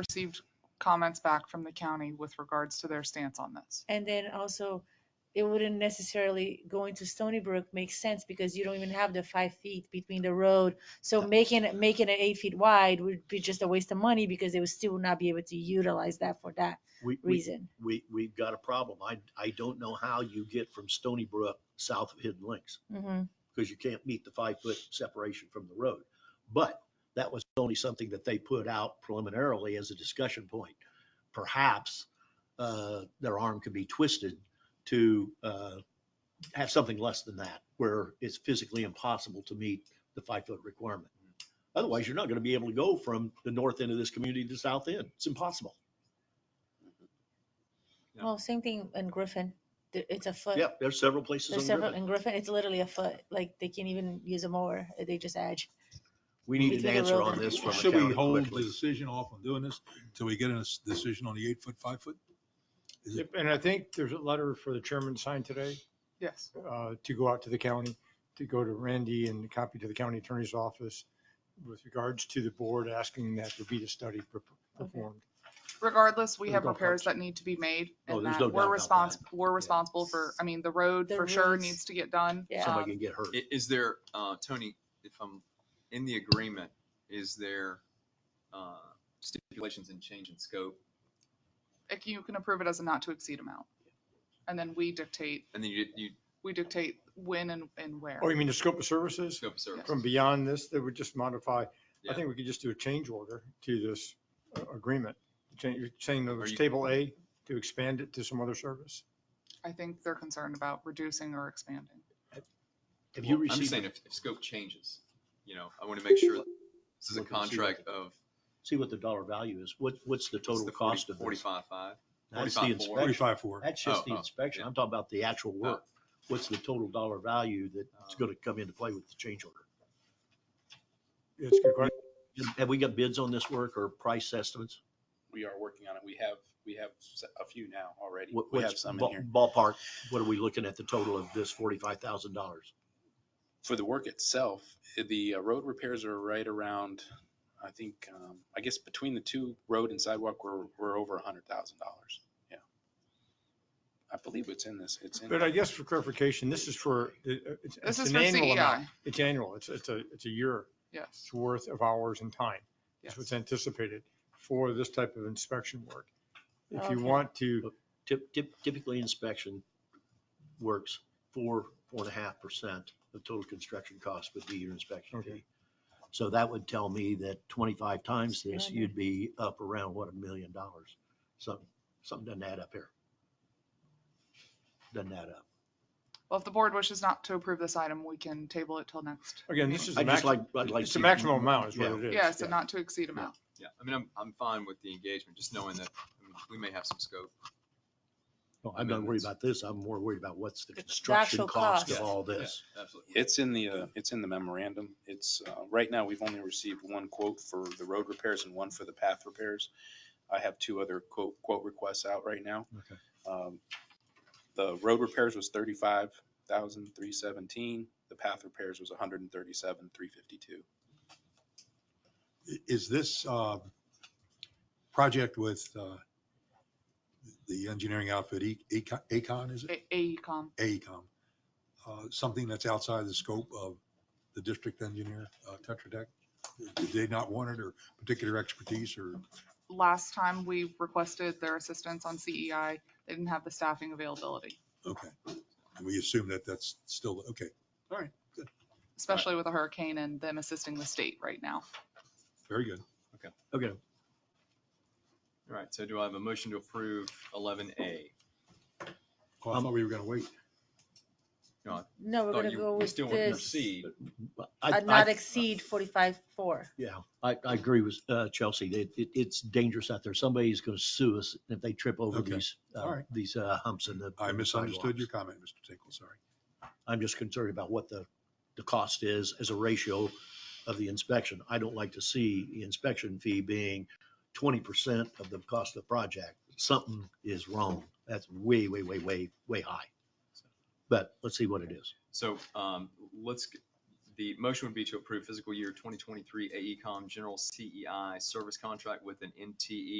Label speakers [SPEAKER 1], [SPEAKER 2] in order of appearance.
[SPEAKER 1] received comments back from the county with regards to their stance on this.
[SPEAKER 2] And then also, it wouldn't necessarily going to Stony Brook make sense because you don't even have the five feet between the road. So making it, making it eight feet wide would be just a waste of money because they would still not be able to utilize that for that
[SPEAKER 3] We, we,
[SPEAKER 2] reason.
[SPEAKER 3] we, we've got a problem. I, I don't know how you get from Stony Brook south of Hidden Links
[SPEAKER 2] Mhm.
[SPEAKER 3] because you can't meet the five foot separation from the road. But that was only something that they put out preliminarily as a discussion point. Perhaps, uh, their arm could be twisted to, uh, have something less than that where it's physically impossible to meet the five foot requirement. Otherwise, you're not going to be able to go from the north end of this community to the south end. It's impossible.
[SPEAKER 4] Yeah.
[SPEAKER 2] Well, same thing in Griffin. There- It's a foot.
[SPEAKER 3] Yep, there's several places on
[SPEAKER 2] There's
[SPEAKER 3] the
[SPEAKER 2] several,
[SPEAKER 3] ribbon.
[SPEAKER 2] in Griffin, it's literally a foot. Like they can't even use a mower. They just edge.
[SPEAKER 3] We need an
[SPEAKER 2] between the
[SPEAKER 3] answer
[SPEAKER 2] road
[SPEAKER 3] on
[SPEAKER 2] and-
[SPEAKER 3] this from the
[SPEAKER 4] Should we
[SPEAKER 3] county
[SPEAKER 4] hold the
[SPEAKER 3] quickly.
[SPEAKER 4] decision off on doing this till we get a s- decision on the eight foot, five foot? Is it-
[SPEAKER 5] Yep, And I think there's a letter for the chairman to sign today
[SPEAKER 1] Yes.
[SPEAKER 5] uh, to go out to the county, to go to Randy and copy to the county attorney's office with regards to the board asking that there be a study per- performed.
[SPEAKER 1] Regardless, we
[SPEAKER 5] There
[SPEAKER 1] have
[SPEAKER 5] you go,
[SPEAKER 1] repairs
[SPEAKER 5] Coach.
[SPEAKER 1] that need to be made
[SPEAKER 3] Oh,
[SPEAKER 1] and
[SPEAKER 3] there's
[SPEAKER 1] that
[SPEAKER 3] no doubt
[SPEAKER 1] we're
[SPEAKER 3] about
[SPEAKER 1] responsible, we're
[SPEAKER 3] Yeah.
[SPEAKER 1] responsible for, I mean, the road
[SPEAKER 2] The
[SPEAKER 1] for sure
[SPEAKER 2] roads.
[SPEAKER 1] needs to get done.
[SPEAKER 2] Yeah.
[SPEAKER 1] Um,
[SPEAKER 3] Somebody can get hurt.
[SPEAKER 6] I- Is there, uh, Tony, if I'm in the agreement, is there, uh, stipulations and change in scope?
[SPEAKER 1] if you can approve it as a not to exceed amount. And then we dictate,
[SPEAKER 6] And then you, you
[SPEAKER 1] we dictate when and, and where.
[SPEAKER 5] Oh, you mean the scope of services
[SPEAKER 6] scope of service?
[SPEAKER 5] from beyond this that would just modify? I
[SPEAKER 6] Yeah.
[SPEAKER 5] think we could just do a change order to this uh, agreement. Change, you're saying that
[SPEAKER 6] Are
[SPEAKER 5] was
[SPEAKER 6] you-
[SPEAKER 5] table A to expand it to some other service?
[SPEAKER 1] I think they're concerned about reducing or expanding.
[SPEAKER 3] Have you
[SPEAKER 6] Well, I'm just
[SPEAKER 3] received,
[SPEAKER 6] saying if, if scope changes, you know, I want to make sure this is a
[SPEAKER 3] Look and see what
[SPEAKER 6] contract
[SPEAKER 3] the-
[SPEAKER 6] of.
[SPEAKER 3] see what the dollar value is? What, what's the total cost of this?
[SPEAKER 6] Forty-five, five.
[SPEAKER 3] That's the
[SPEAKER 6] 45,
[SPEAKER 3] inspection.
[SPEAKER 4] Forty-five, four.
[SPEAKER 3] That's just
[SPEAKER 6] Oh,
[SPEAKER 3] the
[SPEAKER 6] oh,
[SPEAKER 3] inspection.
[SPEAKER 6] yeah.
[SPEAKER 3] I'm talking about the actual work. What's the total dollar value that's
[SPEAKER 6] Oh.
[SPEAKER 3] going to come into play with the change order?
[SPEAKER 5] It's a good question.
[SPEAKER 3] Have we got bids on this work or price estimates?
[SPEAKER 7] we are working on it. We have, we have s- a few now already.
[SPEAKER 3] What-
[SPEAKER 7] We have
[SPEAKER 3] what's
[SPEAKER 7] some in
[SPEAKER 3] ba-
[SPEAKER 7] here.
[SPEAKER 3] Ballpark, what are we looking at the total of this forty-five thousand dollars?
[SPEAKER 7] For the work itself, the uh, road repairs are right around, I think, um, I guess between the two road and sidewalk, we're, we're over a hundred thousand dollars. Yeah. I believe it's in this. It's in.
[SPEAKER 5] But I guess for clarification, this is for, it- it's
[SPEAKER 1] This
[SPEAKER 5] it's
[SPEAKER 1] is
[SPEAKER 5] an
[SPEAKER 1] for E
[SPEAKER 5] annual amount.
[SPEAKER 1] CEI,
[SPEAKER 5] It's annual. It's, it's a, it's a year.
[SPEAKER 1] yes.
[SPEAKER 5] it's worth of hours and time.
[SPEAKER 1] Yes.
[SPEAKER 5] is what's anticipated for this type of inspection work. If
[SPEAKER 2] Okay.
[SPEAKER 5] you want to,
[SPEAKER 3] Typ- typ- Typically, inspection works four, four and a half percent of total construction cost would be your inspection
[SPEAKER 5] Okay.
[SPEAKER 3] fee. So that would tell me that twenty-five times
[SPEAKER 2] Yeah,
[SPEAKER 3] this,
[SPEAKER 2] I know.
[SPEAKER 3] you'd be up around, what, a million dollars? Something, something doesn't add up here. Doesn't add up.
[SPEAKER 1] Well, if the board wishes not to approve this item, we can table it till next.
[SPEAKER 5] again, this is the
[SPEAKER 3] I'd just
[SPEAKER 5] maximum,
[SPEAKER 3] like, I'd like.
[SPEAKER 5] it's the
[SPEAKER 3] to-
[SPEAKER 5] maximum amount is what it is.
[SPEAKER 1] Yeah, it's a not to exceed amount.
[SPEAKER 6] Yeah, I mean, I'm, I'm fine with the engagement, just knowing that I mean, we may have some scope.
[SPEAKER 3] No, I'm not worried about this. I'm more worried about what's the
[SPEAKER 2] The
[SPEAKER 3] construction
[SPEAKER 2] actual
[SPEAKER 3] cost of
[SPEAKER 6] cost.
[SPEAKER 3] all
[SPEAKER 6] Yeah,
[SPEAKER 3] this.
[SPEAKER 6] Absolutely.
[SPEAKER 7] It's in the, uh, it's in the memorandum. It's, uh, right now, we've only received one quote for the road repairs and one for the path repairs. I have two other quote, quote requests out right now.
[SPEAKER 3] Okay.
[SPEAKER 7] Um, The road repairs was thirty-five thousand, three seventeen. The path repairs was hundred and thirty-seven, three fifty-two.
[SPEAKER 4] I- Is this, uh, project with, uh, the engineering outfit, E- Econ, Acon, is it? E
[SPEAKER 1] A- E AECom,
[SPEAKER 4] Acon. Uh, something that's outside the scope of the district engineer, uh, Tetra Tech? Did they not want it or particular expertise or?
[SPEAKER 1] last time we requested their assistance on CEI, they didn't have the staffing availability,
[SPEAKER 4] Okay. And we assume that that's still, okay, all right, good,
[SPEAKER 1] especially with a hurricane and them assisting the state right now.
[SPEAKER 4] very good.
[SPEAKER 3] Okay,
[SPEAKER 6] All right, so do I have a motion to approve eleven A?
[SPEAKER 4] Oh, I thought we were gonna wait.
[SPEAKER 2] No,
[SPEAKER 3] Oh,
[SPEAKER 2] we're gonna go with
[SPEAKER 6] Still want to
[SPEAKER 2] this,
[SPEAKER 6] proceed.
[SPEAKER 3] but I,
[SPEAKER 2] uh, not
[SPEAKER 3] I-
[SPEAKER 2] exceed forty-five, four.
[SPEAKER 3] yeah, I, I agree with uh, Chelsea. It, it, it's dangerous out there. Somebody's going to sue us if they trip over
[SPEAKER 4] Okay.
[SPEAKER 3] these, uh,
[SPEAKER 4] All right.
[SPEAKER 3] these uh, humps in the.
[SPEAKER 4] I
[SPEAKER 3] in the
[SPEAKER 4] misunderstood your
[SPEAKER 3] sidewalks.
[SPEAKER 4] comment, Mr. Tinkle, sorry.
[SPEAKER 3] I'm just concerned about what the, the cost is as a ratio of the inspection. I don't like to see the inspection fee being twenty percent of the cost of the project. Something is wrong. That's way, way, way, way, way high. But let's see what it is.
[SPEAKER 6] So um, let's, g- The motion would be E to approve fiscal year 2023 AECom General CEI Service E Contract with an E NTE